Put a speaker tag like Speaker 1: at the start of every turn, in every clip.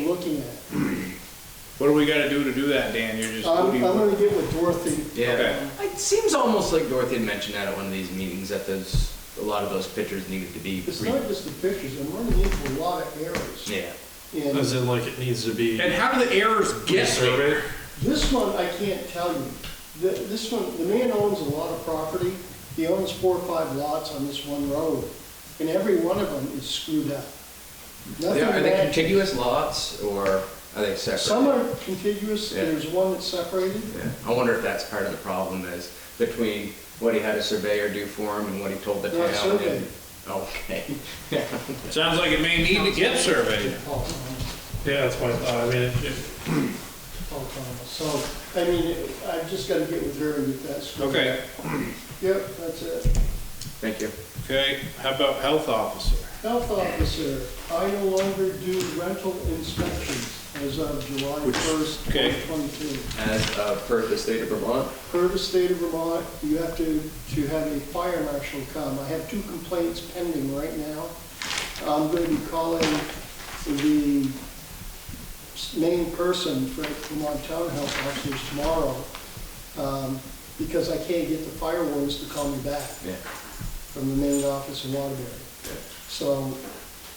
Speaker 1: looking at.
Speaker 2: What do we gotta do to do that, Dan? You're just.
Speaker 1: I'm,
Speaker 2: what do
Speaker 1: I'm
Speaker 2: you-
Speaker 1: gonna get with Dorothy.
Speaker 2: Okay.
Speaker 3: Yeah. It seems almost like Dorothy had mentioned that at one of these meetings, that those, a lot of those pictures needed to be.
Speaker 1: It's
Speaker 3: re-
Speaker 1: not just the pictures, I'm running into a lot of errors.
Speaker 3: Yeah.
Speaker 4: As
Speaker 1: And
Speaker 4: in, like, it needs to be
Speaker 2: And how do the errors get there?
Speaker 4: surveyed?
Speaker 1: this one, I can't tell you. The- This one, the man owns a lot of property. He owns four or five lots on this one road, and every one of them is screwed up. Nothing
Speaker 3: Are they
Speaker 1: matches.
Speaker 3: contiguous lots or are they separate?
Speaker 1: Some are contiguous,
Speaker 3: Yeah.
Speaker 1: and there's one that's separated.
Speaker 3: Yeah. I wonder if that's part of the problem is between what he had a surveyor do for him and what he told the
Speaker 1: No, it's
Speaker 3: town.
Speaker 1: okay.
Speaker 3: and- Okay.
Speaker 2: Sounds like it may need to get surveyed.
Speaker 1: Paul oh,
Speaker 4: Yeah, that's my thought. I mean, it- it-
Speaker 1: Thomas, Paul oh, Thomas. So, I mean, I've just gotta get with her and get that screwed up.
Speaker 2: Okay,
Speaker 1: Yep, that's it.
Speaker 3: Thank you.
Speaker 2: okay. How about health officer?
Speaker 1: Health officer, I no longer do rental inspections as of July
Speaker 3: Which-
Speaker 1: 1st,
Speaker 2: okay.
Speaker 1: 2022.
Speaker 3: As uh, per the state of Vermont,
Speaker 1: Per the state of Vermont, you have to, to have a fire marshal come. I have two complaints pending right now. I'm going to be calling the s- main person for Vermont Town Health Officers tomorrow um, because I can't get the fire wardens to call me back
Speaker 3: yeah.
Speaker 1: from the main office in Waterbury. So,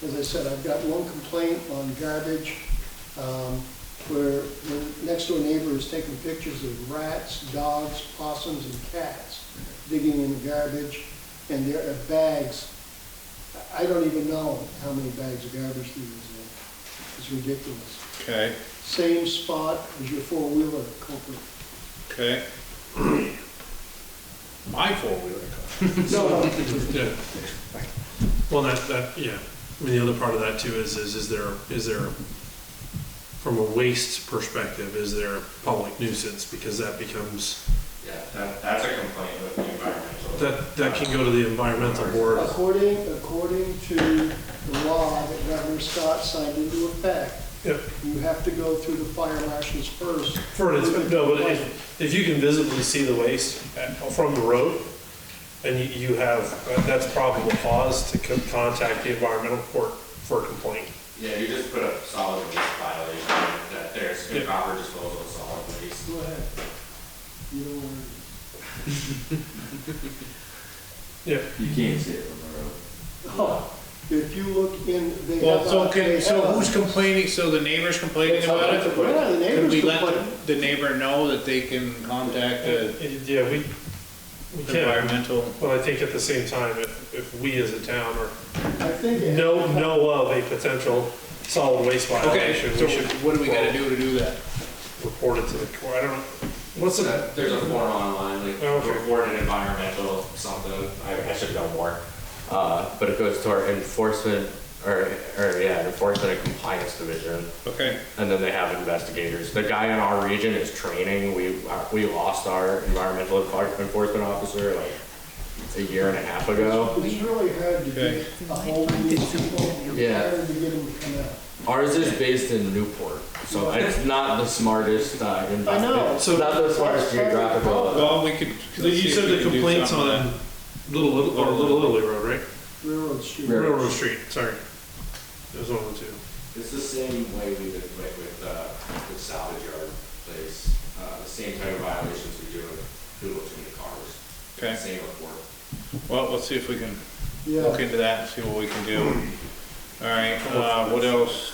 Speaker 1: as I said, I've got one complaint on garbage, um, where the next door neighbor is taking pictures of rats, dogs, possums, and cats digging in the garbage, and there are bags, I don't even know how many bags of garbage there is in. It's ridiculous.
Speaker 2: Okay,
Speaker 1: Same spot as your four-wheeler culprit.
Speaker 2: okay. My four-wheeler car.
Speaker 1: No, no,
Speaker 4: yeah. Well, that, that, yeah. I mean, the other part of that too is, is, is there, is there, from a waste perspective, is there a public nuisance? Because that becomes,
Speaker 5: Yeah, that, that's a complaint with the environmental.
Speaker 4: that, that can go to the environmental board.
Speaker 1: According, according to the law that Governor Scott signed into effect,
Speaker 4: Yep.
Speaker 1: you have to go through the fire marshals first.
Speaker 4: For an inspe- no, but if, if you can visibly see the waste at- from the road, and you, you have, that's probable cause to co- contact the environmental court for a complaint.
Speaker 5: Yeah, you just put a solid waste violation that there's
Speaker 4: Yeah.
Speaker 5: improper disposal of solid waste.
Speaker 1: Go ahead. You don't want
Speaker 4: Yeah.
Speaker 3: You can't see it from the road.
Speaker 1: to- Oh, If you look in, they have.
Speaker 2: Well,
Speaker 1: a-
Speaker 2: so
Speaker 1: they
Speaker 2: can, so
Speaker 1: have a-
Speaker 2: who's complaining? So the neighbor's complaining about it?
Speaker 1: Yeah, the
Speaker 2: Can
Speaker 1: neighbors
Speaker 2: we let
Speaker 1: complain.
Speaker 2: the- the neighbor know that they can contact the
Speaker 4: Uh, Yeah, we, we can,
Speaker 2: environmental?
Speaker 4: but I think at the same time, if, if we as a town are
Speaker 1: I think.
Speaker 4: know, know of a potential solid waste
Speaker 2: Okay,
Speaker 4: violation,
Speaker 2: so
Speaker 4: we should
Speaker 2: what do we gotta do to do that?
Speaker 4: report it to the court. I don't, what's
Speaker 2: Uh,
Speaker 4: the,
Speaker 5: There's a form online, like
Speaker 4: Oh, Okay.
Speaker 5: report an environmental something, I, I should know more. Uh, but it goes to our enforcement, or, or, yeah, enforcement and compliance division.
Speaker 2: Okay,
Speaker 5: And then they have investigators. The guy in our region is training. We, uh, we lost our environmental enfor- enforcement officer like a year and a half ago.
Speaker 1: It's really hard to get
Speaker 2: Okay.
Speaker 1: a hold of these people. It's
Speaker 5: Yeah.
Speaker 1: hard to get them to come out.
Speaker 5: Ours is based in Newport, so it's not the smartest, uh, investment.
Speaker 1: I know.
Speaker 5: It's not the smartest geographical.
Speaker 2: well, we could.
Speaker 4: so you said the complaints on Little, Little- or Little Italy Road, right?
Speaker 1: Railroad Street.
Speaker 5: Railroad.
Speaker 4: Railroad Street, sorry. It was one of the two.
Speaker 5: It's the same way we did like with, uh, the salvage yard place, uh, the same type of violations we do with who looks in the cars.
Speaker 2: Okay,
Speaker 5: Same report.
Speaker 2: well, let's see if we can look
Speaker 1: Yeah,
Speaker 2: into that and see what we can do. All right, uh, what else?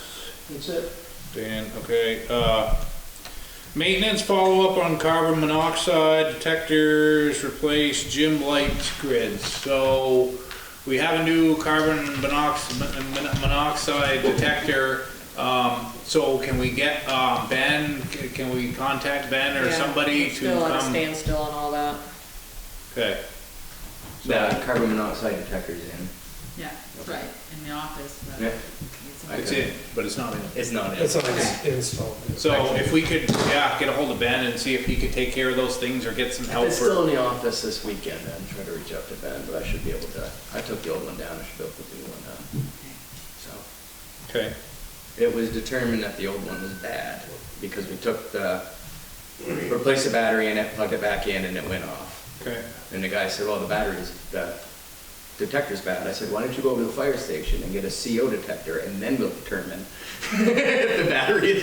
Speaker 1: that's it.
Speaker 2: Dan, okay, uh, maintenance follow-up on carbon monoxide detectors, replace gym light grids. So we have a new carbon monox- mon- mon- monoxide detector. Um, so can we get, um, Ben, c- can we contact Ben or
Speaker 6: Yeah,
Speaker 2: somebody
Speaker 6: it's
Speaker 2: to
Speaker 6: Still on a
Speaker 2: come?
Speaker 6: standstill and all that.
Speaker 2: Okay,
Speaker 3: The carbon monoxide detector's in.
Speaker 6: Yeah, right, in the office,
Speaker 3: Yeah.
Speaker 2: it's in, but it's not in.
Speaker 3: It's not in.
Speaker 4: It's not installed.
Speaker 2: So if we could, yeah, get a hold of Ben and see if he could take care of those things or get some help.
Speaker 7: It's
Speaker 2: or-
Speaker 7: still in the office this weekend, I'm trying to reach out to Ben, but I should be able to, I took the old one down, I should be able to put the new one
Speaker 3: uh,
Speaker 7: down. So,
Speaker 2: Okay,
Speaker 7: it was determined that the old one was bad, because we took the, replaced the battery in it, plugged it back in, and it went off.
Speaker 2: okay.
Speaker 7: And the guy said, well, the battery's, the detector's bad. I said, why don't you go over to the fire station and get a CO detector and then we'll determine if the battery is